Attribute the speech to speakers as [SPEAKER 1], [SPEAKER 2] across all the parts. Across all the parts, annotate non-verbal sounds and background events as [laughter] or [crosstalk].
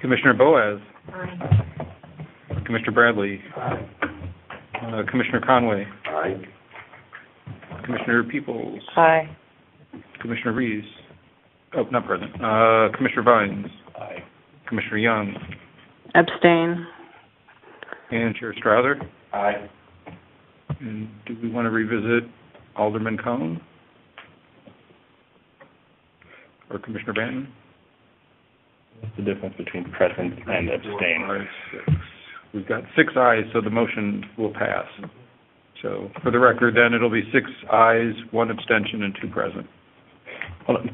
[SPEAKER 1] Commissioner Boaz,
[SPEAKER 2] Aye.
[SPEAKER 1] Commissioner Bradley,
[SPEAKER 2] Aye.
[SPEAKER 1] uh, Commissioner Conway,
[SPEAKER 2] Aye.
[SPEAKER 1] Commissioner Peoples,
[SPEAKER 3] Aye.
[SPEAKER 1] Commissioner Reeves, oh, not present, uh, Commissioner Vines,
[SPEAKER 2] Aye.
[SPEAKER 1] Commissioner Young,
[SPEAKER 3] Abstain.
[SPEAKER 1] and Chair Strouser.
[SPEAKER 2] Aye.
[SPEAKER 1] And do we want to revisit Alderman Cone? Or Commissioner Banton?
[SPEAKER 2] What's the difference between present and abstain?
[SPEAKER 1] Four, five, six. We've got six ayes, so the motion will pass. So for the record, then, it'll be six ayes, one abstention, and two present.
[SPEAKER 2] Hold on.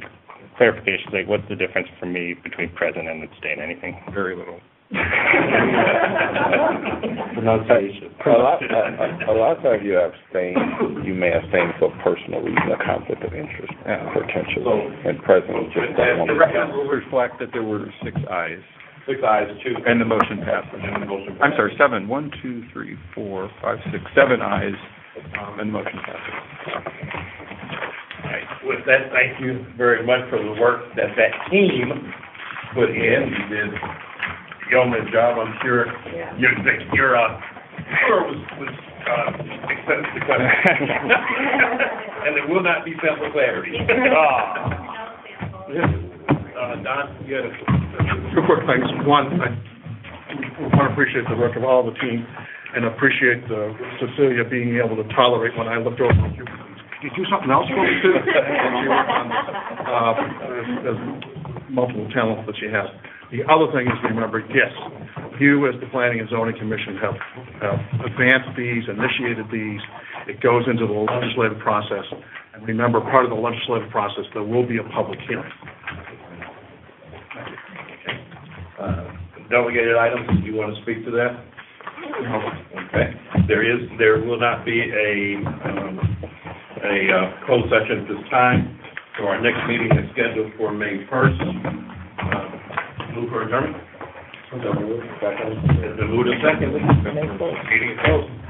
[SPEAKER 2] Clarification, like, what's the difference for me between present and abstain, anything?
[SPEAKER 1] Very little.
[SPEAKER 2] Pronunciation.
[SPEAKER 4] A lot, a, a- a lot of times you abstain, you may abstain for personal reason, a conflict of interest,
[SPEAKER 1] Yeah.
[SPEAKER 4] potentially, and presently just don't want
[SPEAKER 1] The record
[SPEAKER 4] to.
[SPEAKER 1] will reflect that there were six ayes,
[SPEAKER 2] Six eyes, two.
[SPEAKER 1] and the motion passes. I'm sorry, seven. One, two, three, four, five, six, seven ayes, um, and the motion passes.
[SPEAKER 5] All right. With that, thank you very much for the work that that team put in. You did a yeoman's job, I'm sure. Your, your, uh, tour was, was, uh, expensive to come.
[SPEAKER 2] [laughs]
[SPEAKER 5] [laughs] And it will not be sample clarity. Ah. Uh, Don, you had a
[SPEAKER 6] Two quick things. One, I want to appreciate the work of all the team and appreciate uh, Cecilia being able to tolerate when I looked over at you. Did you do something else for me too? And she worked on, uh, there's Multiple talents that she has. The other thing is, remember, yes, you as the Planning and Zoning Commission have have advanced these, initiated these. It goes into the legislative process. And remember, part of the legislative process, there will be a public hearing.
[SPEAKER 5] uh, delegated items, do you want to speak to that? Okay, there is, there will not be a, um, a uh, closed session at this time, so our next meeting is scheduled for May first. Uh, Move for adjournment? It's been moved and seconded. Meeting is closed.